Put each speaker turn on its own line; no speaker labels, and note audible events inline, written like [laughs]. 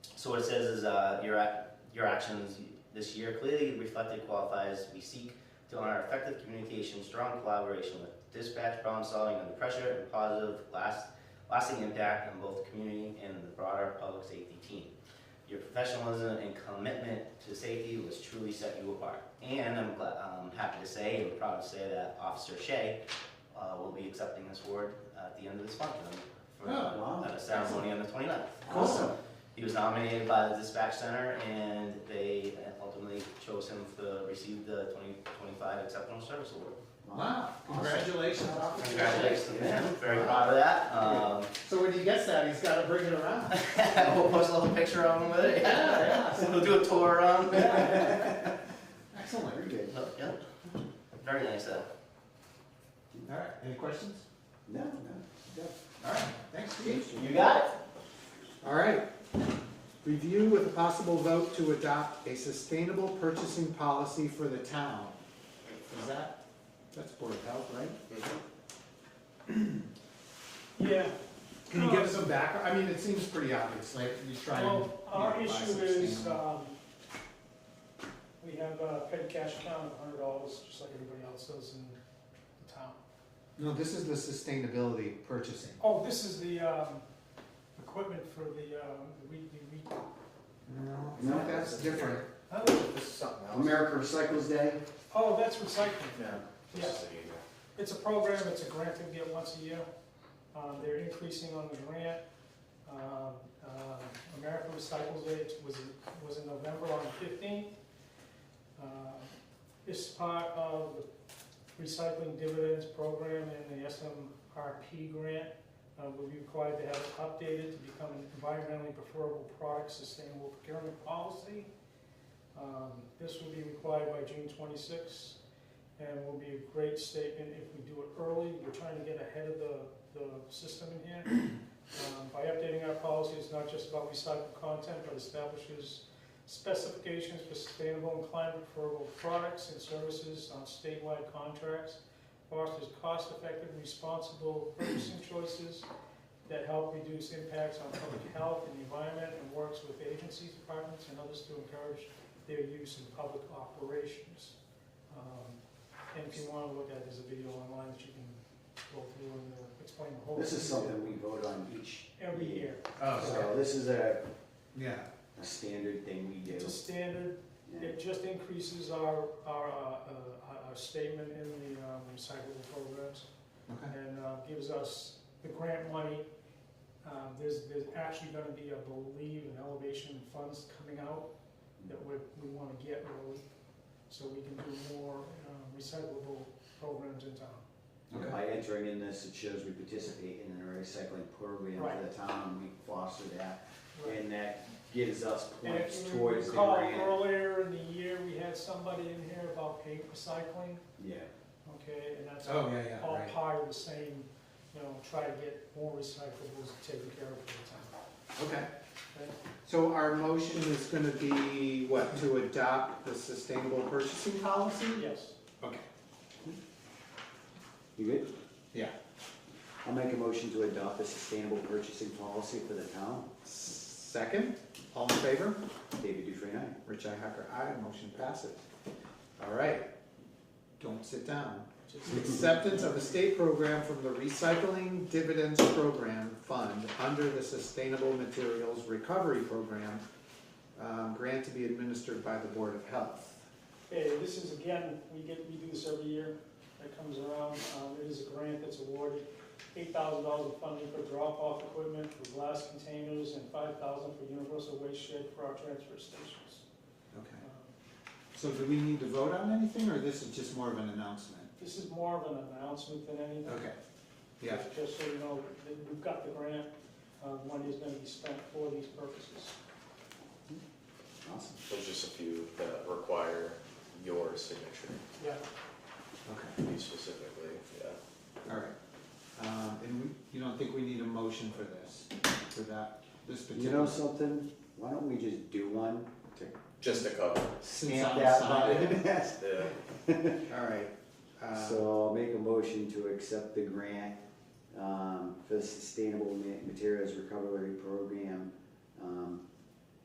So what it says is, uh, your, ac- your actions this year clearly reflected qualifiers we seek to honor effective communication, strong collaboration with dispatch, problem solving under pressure, and positive last, lasting impact on both the community and the broader public safety team. Your professionalism and commitment to safety was truly set you apart. And I'm glad, um, happy to say, and proud to say that Officer Shea, uh, will be accepting this award at the end of this month, um, for,
Oh, wow.
at a ceremony on the 29th.
Awesome.
He was nominated by the dispatch center and they ultimately chose him to receive the 2025 Exceptional Service Award.
Wow, congratulations, officer.
Congratulations to
Yeah.
him, very proud of that. Um, [laughs]
So when he gets that, he's gotta bring it around.
We'll post a little picture of him with it.
Yeah,
So [laughs] We'll do a tour around.
yeah. Excellent.
Oh, yeah. Very nice though.
All right, any questions?
No, no.
All right, thanks, Steve.
You got it?
All right. Review with a possible vote to adopt a sustainable purchasing policy for the town. Is that, that's Board of Health, right?
Mm-hmm. Yeah,
Can you give us some background? I mean, it seems pretty obvious, like you try and.
well, our
you know, buy
issue is,
sustainable.
um, we have a paid cash account of hundred dollars, just like everybody else does in the town.
No, this is the sustainability purchasing.
Oh, this is the, um, equipment for the, um, the weed, the weed.
No,
No,
that's
that's
different.
huh?
This is something else.
America Recycles Day?
Oh, that's recycling.
Yeah.
Yeah. It's a program, it's a grant they get once a year. Uh, They're increasing on the grant. Um, um, America Recycles Day was, was in November on the fifteenth. Uh, It's part of the recycling dividends program and the SMRP grant. Uh, Will be required to have it updated to become an environmentally preferable product sustainable procurement policy. Um, This will be required by June twenty-sixth and will be a great statement if we do it early. We're trying to get ahead of the, the system in here. Um, By updating our policy, it's not just about recycled content, but establishes specifications for sustainable and climate preferable products and services on statewide contracts, fosters cost-effective, responsible purchasing choices that help reduce impacts on public health and the environment, and works with agencies, departments, and others to encourage their use in public operations. Um, And if you want to look at it, there's a video online that you can go through and uh, explain the whole.
This is
thing.
something we vote on each.
Every year.
Oh,
So this is a,
Yeah,
a standard thing we do.
It's a standard,
Yeah.
it just increases our, our, uh, uh, our statement in the um, recyclable programs
okay.
and uh, gives us the grant money. Um, There's, there's actually gonna be, I believe, an elevation funds coming out that we, we wanna get those so we can do more um, recyclable programs in town.
And By entering in this, it shows we participate in a recycling program for the town, and we foster that. And that gives us
And
points
if you
towards the
recall,
grant.
earlier in the year, we had somebody in here about paper recycling,
Yeah,
okay, and that's.
Oh, yeah, yeah,
all
right.
part of the same, you know, try to get more recyclables taken care of for
Okay.
the town.
So our motion is gonna be, what, to adopt the sustainable purchasing policy?
Okay? Yes.
Okay.
you good?
Yeah.
I'll make a motion to adopt a sustainable purchasing policy for the town.
Second, all in favor?
David Dufresne, aye.
Rich Hacker, aye, motion passes. All right, don't sit down.
Just-
Acceptance of a state program from the Recycling Dividends Program Fund under the Sustainable Materials Recovery Program, um, grant to be administered by the Board of Health.
Okay, this is again, we get, we do this every year, that comes around, um, it is a grant that's awarded, eight thousand dollars of funding for drop-off equipment for glass containers and five thousand for universal waste shed for our transfer stations.
Okay.
Um,
So do we need to vote on anything, or this is just more of an announcement?
This is more of an announcement than anything.
Okay, Uh, yeah,
Just so you know, that we've got the grant, uh, money is gonna be spent for these purposes.
Awesome.
There's just a few that require your signature,
Yeah.
okay,
you specifically, yeah.
all right. Um, and we, you don't think we need a motion for this, for that, this
You
particular?
know something? Why don't we just do one?
Just a couple,
since
Stamp
I'm
that
signing it?
button.
[laughs]
yeah.
All right, uh,
So I'll make a motion to accept the grant um, for the Sustainable Ma- Materials Recovery Program um,